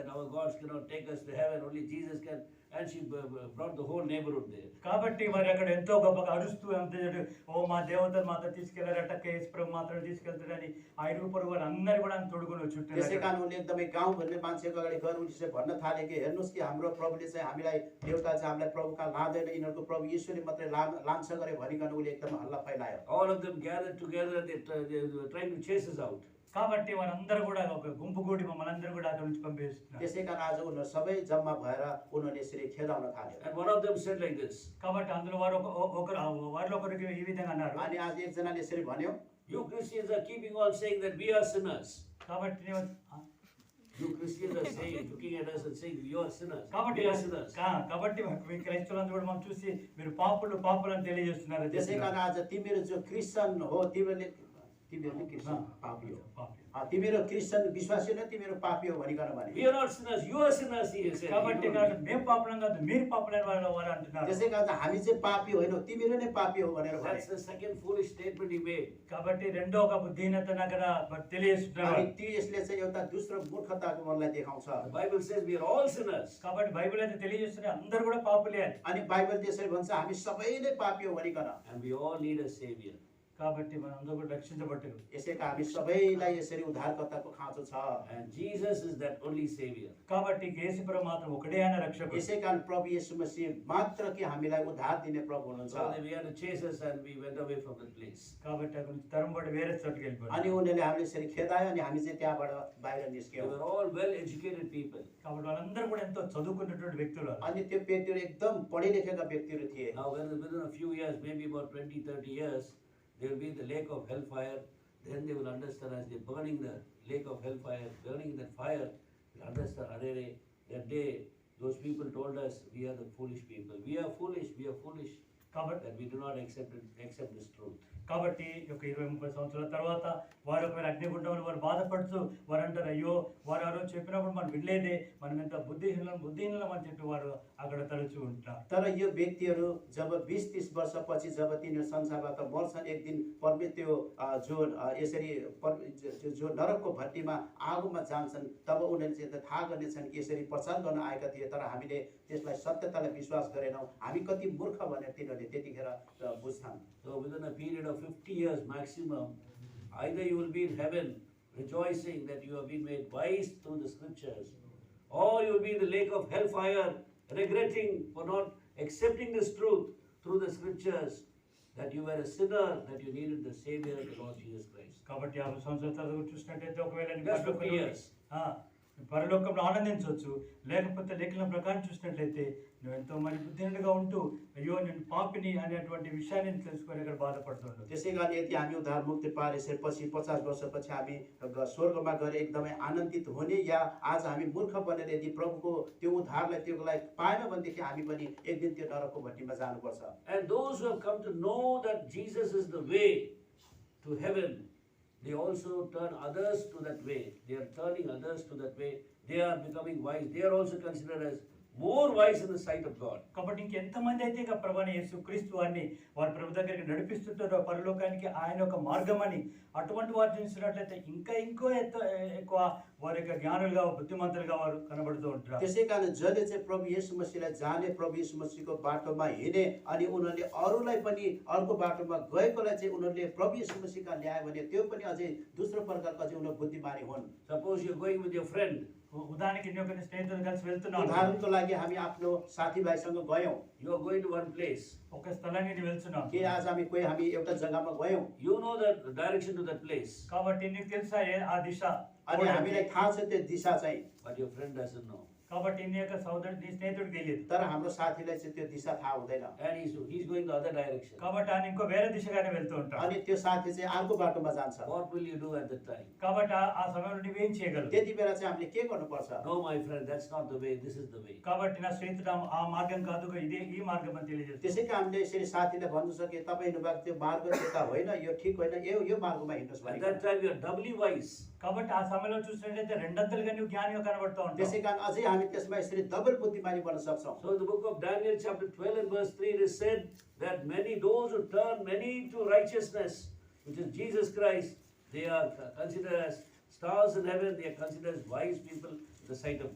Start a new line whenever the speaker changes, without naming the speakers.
our gods cannot take us to heaven, only Jesus can. And she b- b- brought the whole neighborhood there.
కాబట్టి మరి అక్కడ ఎంతో గొప్పగా అరుస్తూ అంతేడు ఓ మా దేవతలు మాత్రం తీసుకెళ్లారట కేసు ప్రభు మాత్రం తీసుకెళ్తాడని ఆ ఇరుగు పొరుగు వారు అందరు కూడా ఆయన తొడుగును
त्यसै
చుట్టూ
कारण उनले एकदमै गाउँ भन्ने मान्छेको अगाडि गएर उनले चाहिँ भन्न थाले कि हेर्नुहोस् कि हाम्रो प्रभुले चाहिँ हामीलाई देउता चाहिँ हामीलाई प्रभु कहाँ लाँदैन यिनीहरूको प्रभु यीशुले मात्रै ला लान्छ गरे भनिकन उसले एकदम हल्ला फैलायो
All of them gathered together and they, t- they were trying to chase us out.
కాబట్టి వారందరూ కూడా ఒక గుంపు కూడి మమ్మల్ని అందరూ కూడా అక్కడ నుంచి పంపిస్తున్నారు
त्यसै कारण आज उनीहरू सबै जम्मा भएर उनीहरूले यसरी खेदाउन थाल्यो
And one of them said like this
కాబట్టి అందులో వారు ఒక- ఒక- ఒకరు ఆ వారిలో ఒకరికి ఈ విధంగా అన్నారు
अनि आज एकजनाले यसरी भन्यो
You Christians are keeping on saying that we are sinners.
కాబట్టి నేను- ఆ,
You Christians are saying, looking at us and saying, you are sinners.
కాబట్టి
We are sinners.
కా- కాబట్టి మీ క్రైస్తవులందరూ కూడా మనం చూసి మీరు పాపులు పాపులు అని తెలియజేస్తున్నారు అని
त्यसै कारण
చెప్తున్నారు.
आज तिमीहरू जो क्रिस्चियन हो तिमीहरूले तिमीहरू नै क्रिस्चियन पापी हो
పాపులు.
अँ, तिमीहरू क्रिस्चियन विश्वासी नै तिमीहरू पापी हो भनिकन
We
भने
are not sinners, you are sinners, he said.
కాబట్టి
You know.
కాదు మేము పాపలం కాదు మీరు పాపలైన వారు వారు అంటున్నారు
त्यसै कारण हामी चाहिँ पापी होइनौ तिमीहरू नै पापी हो भनेर भने
That's the second foolish statement he made.
కాబట్టి రెండో ఒక బుద్ధిహీనతను అక్కడ తెలియజేస్తున్నారు
अनि त्यो यसले चाहिँ एउटा दोस्रो मूर्खताको मनलाई देखाउँछ
The Bible says we are all sinners.
కాబట్టి బైబిల్ అయితే తెలియజేస్తున్నారు అందరూ కూడా పాపులే అని
अनि बाइबल त्यसरी भन्छ हामी सबै नै पापी हो भनिकन
And we all need a savior.
కాబట్టి మనం అందరూ కూడా రక్షించబడ్డారు
यसैका हामी सबैलाई यसरी उद्धारकर्ताको खाँचो छ
And Jesus is that only savior.
కాబట్టి కేసీపురం మాత్రం ఒకడే ఆయన రక్షకుడు
यसै कारण प्रभु येशू मसीह मात्र कि हामीलाई उद्धार दिने प्रभु हुनुहुन्छ
So they began to chase us and we went away from the place.
కాబట్టి అక్కడ నుంచి తరంబడి వేరే చోటుకి
अनि
వెళ్ళిపోయారు
उनीहरूले हामीले यसरी खेदायो अनि हामी चाहिँ त्यहाँबाट बाहिर
They
निस्क्यौँ
were all well educated people.
కాబట్టి వాళ్ళందరూ కూడా ఎంతో చదువుకున్నటువంటి వ్యక్తులు వాళ్ళు.
अनि त्यो व्यक्तिहरू एकदम पढे लेखेका व्यक्तिहरू थिए
Now, when- within a few years, maybe about 20, 30 years, they will be in the lake of hellfire. Then they will understand as they're burning the lake of hellfire, burning that fire, they'll understand, Arere, that day, those people told us, we are the foolish people. We are foolish, we are foolish,
కాబట్టి
that we do not accept, it, accept this truth.
కాబట్టి ఈ యొక్క ఇరవై ముప్పై సంవత్సరాల తర్వాత వారు ఒకవేళ అగ్నిగుండంలో వారు బాధపడుతూ వారు అంటారు అయ్యో వారు ఎవరో చెప్పినప్పుడు మనం వినలేదే మనం ఎంత బుద్ధిహీనం బుద్ధిహీనం అని చెప్పి వారు అక్కడ తలుచు ఉంటారు
तर यो व्यक्तिहरू जब बिस तिस वर्षपछि जब तिनीहरू संसारबाट मर्छन् एक दिन परमे त्यो अ, जो अ, यसरी पर- जो- जो नरकको भट्टीमा आगोमा जान्छन् तब उनीहरूले चाहिँ त थाहा गर्नेछन् कि यसरी प्रचार गर्न आएका थिए तर हामीले त्यसलाई सत्यतालाई विश्वास गरेनौँ हामी कति मूर्ख भनेर तिनीहरूले त्यतिखेर अ, बुझ्छन्
So within a period of 50 years maximum, either you will be in heaven rejoicing that you have been made wise through the scriptures, or you will be in the lake of hellfire regretting for not accepting this truth through the scriptures that you were a sinner, that you needed the Savior, the Lord Jesus Christ.
కాబట్టి యాభై సంవత్సరాల తర్వాత చూసినట్టయితే ఒకవేళ నీ
Just
పరలోకంలో-
fifty years.
ఆ, నీ పరలోకంలో ఆనందించవచ్చు లేకపోతే లేఖనం ప్రకారం చూసినట్లయితే నువ్వు ఎంతో మరి బుద్ధిహీనుడిగా ఉంటూ అయ్యో నేను పాపిని అనేటువంటి విషయాన్ని తెలుసుకొని అక్కడ బాధపడుతుండదు
त्यसै कारण यदि हामी उद्धार मुक्ति पाएर यसरी पछि पचास वर्षपछि हामी ग- स्वर्गमा गएर एकदमै आनन्दित हुने या आज हामी मूर्ख बनेर यदि प्रभुको त्यो उद्धारलाई त्योलाई पाएन भनेदेखि हामी पनि एक दिन त्यो नरकको भट्टीमा जानुपर्छ
And those who have come to know that Jesus is the way to heaven, they also turn others to that way. They are turning others to that way. They are becoming wise. They are also considered as more wise in the sight of God.
కాబట్టి ఇంకెంతమంది అయితే ఇక ప్రభాని యేసు క్రీస్తు వారిని వారి ప్రభు దగ్గరికి నడిపిస్తుంటారో పరలోకానికి ఆయన ఒక మార్గం అని అటువంటి వారు చూసినట్లయితే ఇంకా ఇంకో ఎత్త- ఎక్కువ వారి యొక్క జ్ఞానులుగా బుద్ధిమంతులుగా వారు కనబడుతూ ఉంటారు
त्यसै कारण जसले चाहिँ प्रभु येशु मसीहलाई जाने प्रभु येशु मसीहको बाटोमा हिँडे अनि उनीहरूले अरूलाई पनि अर्को बाटोमा गएकोलाई चाहिँ उनीहरूले प्रभु येशु मसीहका ल्यायो भने त्यो पनि अझै दोस्रो प्रकारको अझै उनीहरू बुद्धिमानी हुन्
Suppose you're going with your friend.
ఉ- ఉదాహరణకి నేను కొన్ని స్నేహితులు కలిసి వెళ్తున్నాను
उदाहरणको लागि हामी आफ्नो साथीभाइसँग गयौँ
You are going to one place.
ఒక స్థలానికి నేను వెళ్తున్నాను
के आज हामी कोही हामी एउटा जग्गामा गयौँ
You know the direction to that place,
కాబట్టి నీకు తెలుసా ఏ- ఆ దిశ
अनि हामीलाई थाहा छ त्यो दिशा चाहिँ
but your friend doesn't know.
కాబట్టి నీ యొక్క సోదరుడు నీ స్నేహితుడికి తెలియదు
तर हाम्रो साथीलाई चाहिँ त्यो दिशा थाहा हुँदैन
And he's, he's going the other direction.
కాబట్టి ఆయన ఇంకో వేరే దిశగానే వెళ్తూ ఉంటాడు
अनि त्यो साथी चाहिँ अर्को बाटोमा जान्छ
What will you do at that time?
కాబట్టి ఆ- ఆ సమయంలో నువ్వేం చేయగలవు
त्यति बेला चाहिँ हामीले के गर्नुपर्छ
No, my friend, that's not the way. This is the way.
కాబట్టి నా స్నేహితుడు ఆ- ఆ మార్గం కాదు ఇదే ఈ మార్గం అని తెలియజేస్తుంది
त्यसै कारण हामीले यसरी साथीलाई भन्नु सक्यो तपाईँ हिँड्नुभएको त्यो मार्ग त्यता होइन यो ठिक होइन यो यो मार्गमा हिँड्नुहोस्
At that
भने
time, you're doubly wise.
కాబట్టి ఆ సమయంలో చూసినట్లయితే రెండంతలుగా నువ్వు జ్ఞానిగా కనబడుతూ ఉంటావు
त्यसै कारण अझै हामी त्यसमा यसरी डबल बुद्धिमानी बन्न सक्छौं
So in the book of Daniel, chapter 12 and verse 3, it is said that many, those who turn many to righteousness, which is Jesus Christ, they are considered as stars in heaven, they are considered as wise people in the sight of